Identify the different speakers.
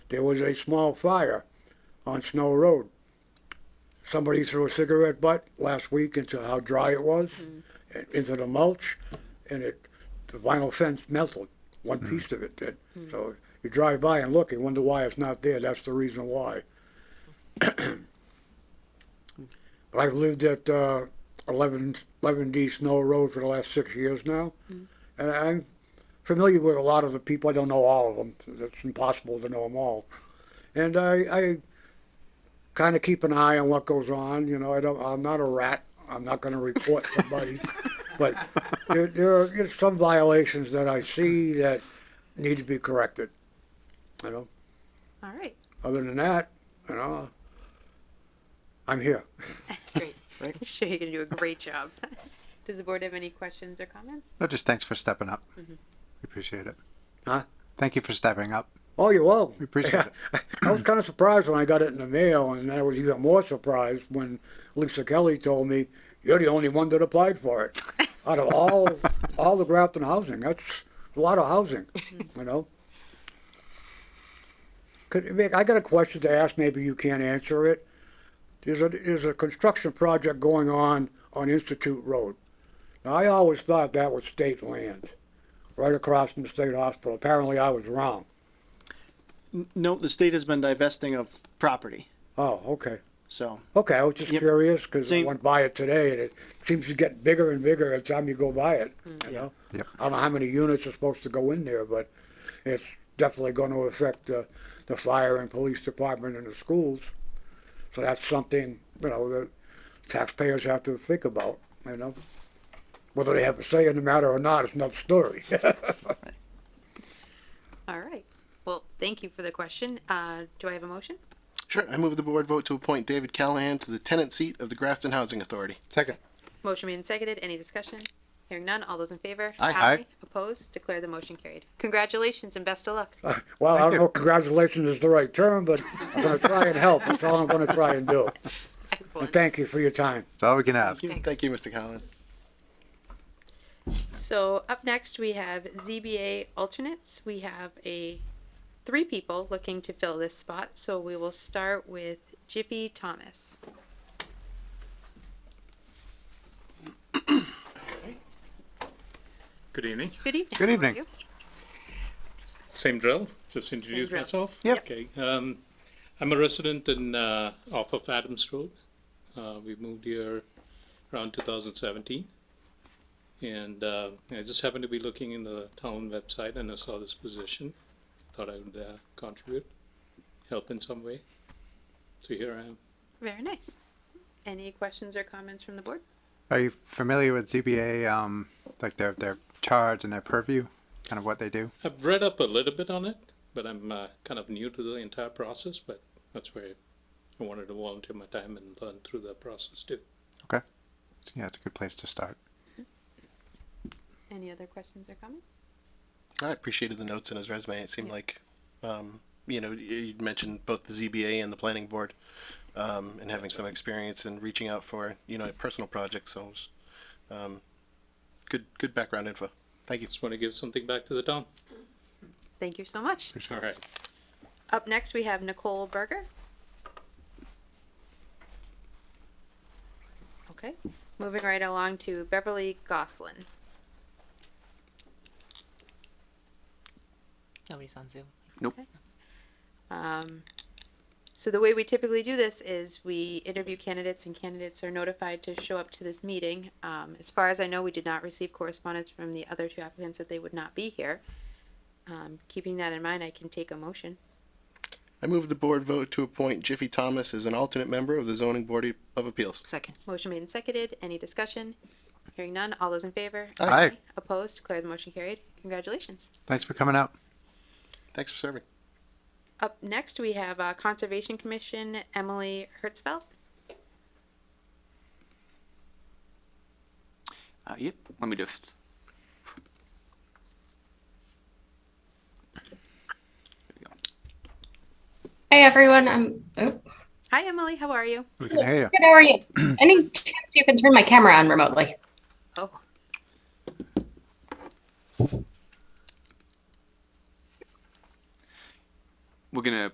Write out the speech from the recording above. Speaker 1: there was a small fire on Snow Road. Somebody threw a cigarette butt last week into how dry it was, and into the mulch, and it, the vinyl fence melted. One piece of it did. So you drive by and look, you wonder why it's not there. That's the reason why. but I've lived at uh, 11, 11D Snow Road for the last six years now, and I'm familiar with a lot of the people. I don't know all of them. It's impossible to know them all. And I, I kind of keep an eye on what goes on. You know, I don't. I'm not a rat. I'm not going to report somebody. but there, there are you know, some violations that I see that need to be corrected. You know.
Speaker 2: All right,
Speaker 1: Other than that, you know, I'm here.
Speaker 2: great. I'm sure you're gonna do a great job. Does the board have any questions or comments?
Speaker 3: No, just thanks for stepping up. We appreciate it.
Speaker 1: Huh?
Speaker 3: Thank you for stepping up.
Speaker 1: Oh, you're welcome.
Speaker 3: We appreciate it.
Speaker 1: I was kind of surprised when I got it in the mail, and I was even more surprised when Lisa Kelly told me, "You're the only one that applied for it out of all all the Grafton housing. That's a lot of housing, you know." Could, Vic, I got a question to ask. Maybe you can't answer it. There's a there's a construction project going on on Institute Road. Now I always thought that was state land, right across from the state hospital. Apparently I was wrong.
Speaker 4: No, the state has been divesting of property,
Speaker 1: Oh, okay.
Speaker 4: so.
Speaker 1: Okay, I was just
Speaker 4: Yep.
Speaker 1: curious because I
Speaker 4: Same-
Speaker 1: went by it today, and it seems to get bigger and bigger every time you go by it.
Speaker 4: Mm.
Speaker 1: You know,
Speaker 3: Yep.
Speaker 1: I don't know how many units are supposed to go in there, but it's definitely going to affect the, the fire and police department and the schools. So that's something you know that taxpayers have to think about. You know, whether they have a say in the matter or not is another story.
Speaker 2: All right. Well, thank you for the question. Uh, do I have a motion?
Speaker 5: Sure, I move the board vote to appoint David Callahan to the tenant seat of the Grafton Housing Authority.
Speaker 3: Second.
Speaker 2: Motion made and seconded. Any discussion? Hearing none. All those in favor?
Speaker 3: Aye. Aye.
Speaker 2: Opposed? Declare the motion carried. Congratulations and best of luck.
Speaker 1: well, I
Speaker 3: Thank
Speaker 1: don't
Speaker 3: you.
Speaker 1: know. if Congratulations is the right term, but I'm going to try and help. That's all I'm going to try and do. And
Speaker 2: Excellent.
Speaker 1: thank you for your time.
Speaker 3: That's all we can ask.
Speaker 2: Thanks.
Speaker 5: Thank you, Mr. Callahan.
Speaker 2: So up next, we have ZBA alternates. We have a three people looking to fill this spot. So we will start with Jiffy Thomas.
Speaker 6: Good evening.
Speaker 2: Good evening.
Speaker 3: Good
Speaker 2: How are
Speaker 3: evening.
Speaker 2: you?
Speaker 6: Same drill. Just introduce
Speaker 2: drill.
Speaker 6: myself.
Speaker 3: Yep.
Speaker 6: Okay. Um, I'm a resident in uh, off of Adams Road. Uh, we moved here around 2017, and uh, I just happened to be looking in the town website and I saw this position. Thought I would uh, contribute, help in some way. So here I am.
Speaker 2: Very nice. Any questions or comments from the board?
Speaker 3: Are you familiar with ZBA, um, like their, their charge and their purview, kind of what they do?
Speaker 6: I've read up a little bit on it, but I'm uh, kind of new to the entire process. But that's where I wanted to volunteer my time and learn through the process too.
Speaker 3: Okay. Yeah, it's a good place to start.
Speaker 2: Any other questions or comments?
Speaker 5: I appreciated the notes in his resume. It seemed like, um, you know, y- you'd mentioned both the ZBA and the planning board, um, and having some experience in reaching out for, you know, personal projects. So, it was, um, good, good background info. Thank you.
Speaker 6: Just want to give something back to the town.
Speaker 2: Thank you so much.
Speaker 6: All right.
Speaker 2: Up next, we have Nicole Berger. Okay, moving right along to Beverly Goslin.
Speaker 7: Nobody's on Zoom.
Speaker 2: Um, so the way we typically do this is we interview candidates and candidates are notified to show up to this meeting. Um, as far as I know, we did not receive correspondence from the other two applicants that they would not be here. Um, keeping that in mind, I can take a motion.
Speaker 5: I move the board vote to appoint Jiffy Thomas as an alternate member of the zoning board of appeals.
Speaker 7: Second.
Speaker 2: Motion made and seconded. Any discussion? Hearing none. All those in favor?
Speaker 3: Aye. Aye.
Speaker 2: Opposed? Declare the motion carried. Congratulations.
Speaker 3: Thanks for coming out.
Speaker 5: Thanks for serving.
Speaker 2: Up next, we have uh, Conservation Commission, Emily Hertzfeld.
Speaker 8: Uh, yep, let me just. There we go.
Speaker 9: Hey everyone, I'm oh,
Speaker 2: Hi, Emily. How are you?
Speaker 3: We can hear you.
Speaker 9: good. How are you? Any chance you can turn my camera on remotely?
Speaker 2: Oh,
Speaker 8: We're gonna